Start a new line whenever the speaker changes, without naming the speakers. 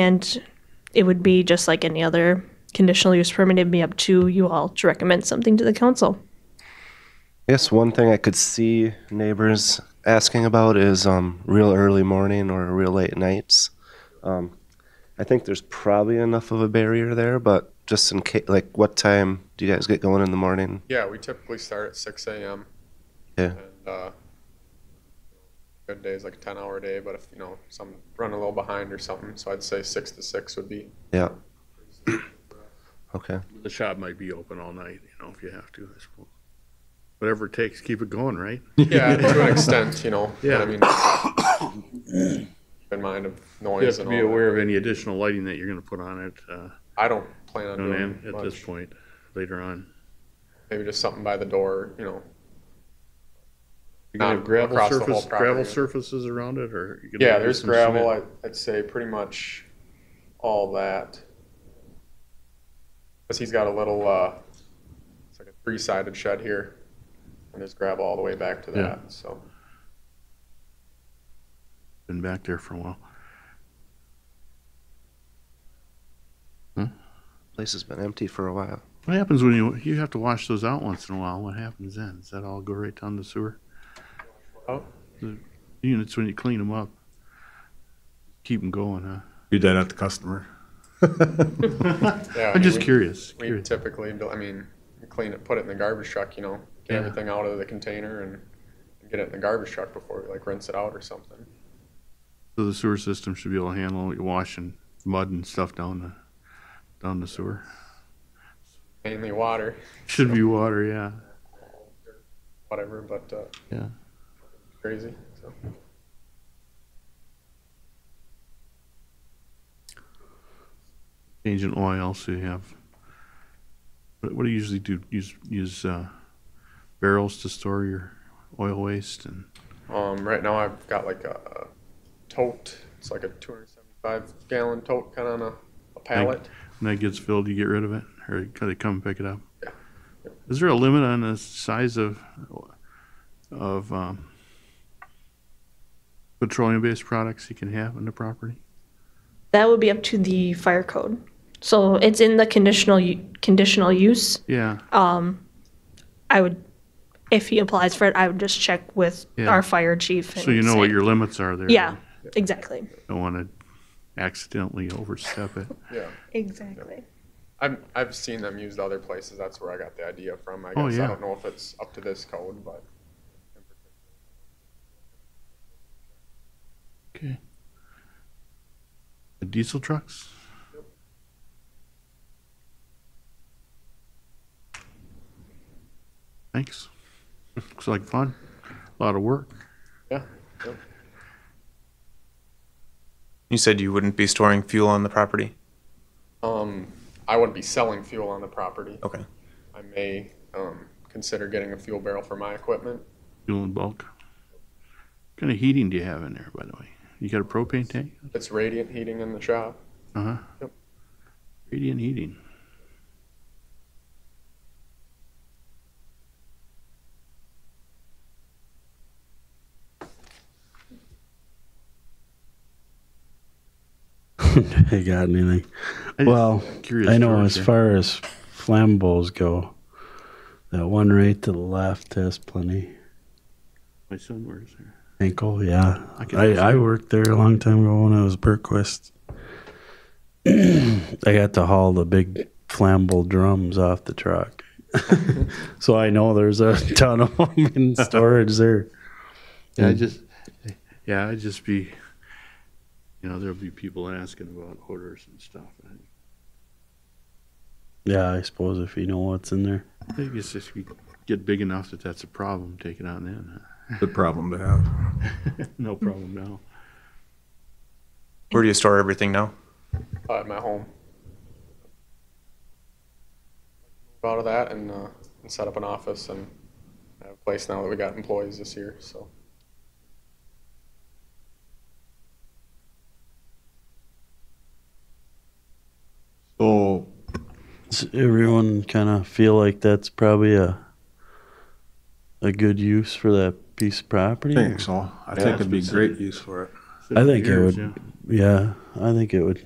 And it would be just like any other conditional use permit, it'd be up to you all to recommend something to the council.
Yes, one thing I could see neighbors asking about is um, real early morning or real late nights. Um, I think there's probably enough of a barrier there, but just in case, like, what time do you guys get going in the morning?
Yeah, we typically start at six AM.
Yeah.
And, uh, good days like a ten hour day, but if, you know, some run a little behind or something, so I'd say six to six would be.
Yeah. Okay.
The shop might be open all night, you know, if you have to, I suppose. Whatever it takes, keep it going, right?
Yeah, to an extent, you know, but I
Yeah.
mean. keep In mind of
You
noise
have to
and
be
all
aware
that.
of any additional lighting that you're gonna put on it, uh,
I don't plan on
on end
doing
at this
much,
point, later on.
maybe just something by the door, you know,
You're gonna have
Not
gravel
across the whole
surface, gravel
property.
surfaces around it, or? you're gonna
Yeah,
have
there's
some
gravel.
cement?
I, I'd say pretty much all that. Cause he's got a little, uh, it's like a three-sided shed here, and there's gravel all the way back to
Yeah.
that. So
Been back there for a while.
Place has been empty for a while.
What happens when you, you have to wash those out once in a while, what happens then? Does that all go right down the sewer?
Oh.
The Units, when you clean them up, keep them going, huh?
Do that at the customer.
yeah, I
I'm
mean,
just
we-
curious,
We
curious.
typically, do- I mean, we clean it, put it in the garbage truck. You know, get
Yeah.
everything out of the container and get it in the garbage truck before we like rinse it out or something.
So the sewer system should be able to handle you washing mud and stuff down the, down the sewer.
Mainly water,
Should be water, yeah.
whatever, but uh,
Yeah.
crazy. So
Changing oil, so you have. What, what do you usually do? Use use uh, barrels to store your oil waste and
Um, right now I've got like a tote. It's like a 275 gallon tote, kind of on a, a pallet.
when that gets filled, you get rid of it, or can they come and pick it up?
Yeah.
Is there a limit on the size of of um, petroleum-based products you can have on the property?
That would be up to the fire code. So it's in the conditional, u- conditional use.
Yeah,
I would, if he applies for it, I would just check with
Yeah.
our fire chief.
so you know what
say-
your limits are there.
Yeah, exactly.
Don't want to accidentally overstep it.
Yeah.
Exactly.
I've, I've seen them used other places. That's where I got the idea from. I guess
Oh,
I
yeah.
don't know if it's up to this code, but
Okay. The diesel trucks? Thanks. Looks like fun. A lot of work.
yeah.
You said you wouldn't be storing fuel on the property?
Um, I wouldn't be selling fuel on the property.
Okay.
I may um, consider getting a fuel barrel for my equipment.
Fuel in bulk. What kind of heating do you have in there, by the way? You got a propane tank?
It's radiant heating in the shop.
Uh huh.
Yep.
Radiant heating.
I got anything.
I just
Well,
curious
I know
stories
as
there.
far as flambeaus go, that one right to the left has plenty.
My son works there.
Ankle, yeah.
I can-
I, I worked there a long time ago when I was Burquist. I got to haul the big flammable drums off the truck. so I know there's a ton of them in storage there.
Yeah,
Hmm.
I just, yeah, I'd just be, you know, there'll be people asking about odors and stuff. and
Yeah, I suppose if you know what's in there.
I think it's just we get big enough that that's a problem. Take it on then.
Good problem to have.
huh? no problem now.
Where do you store everything now?
uh, at my home. Out of that and, uh, and set up an office and I have a place now that we got employees this year. So
So
Does everyone kind of feel like that's probably a a good use for that piece of property?
I think so. I think it'd be
Yeah.
great use for it.
I think it
Years,
would- Yeah, I think it would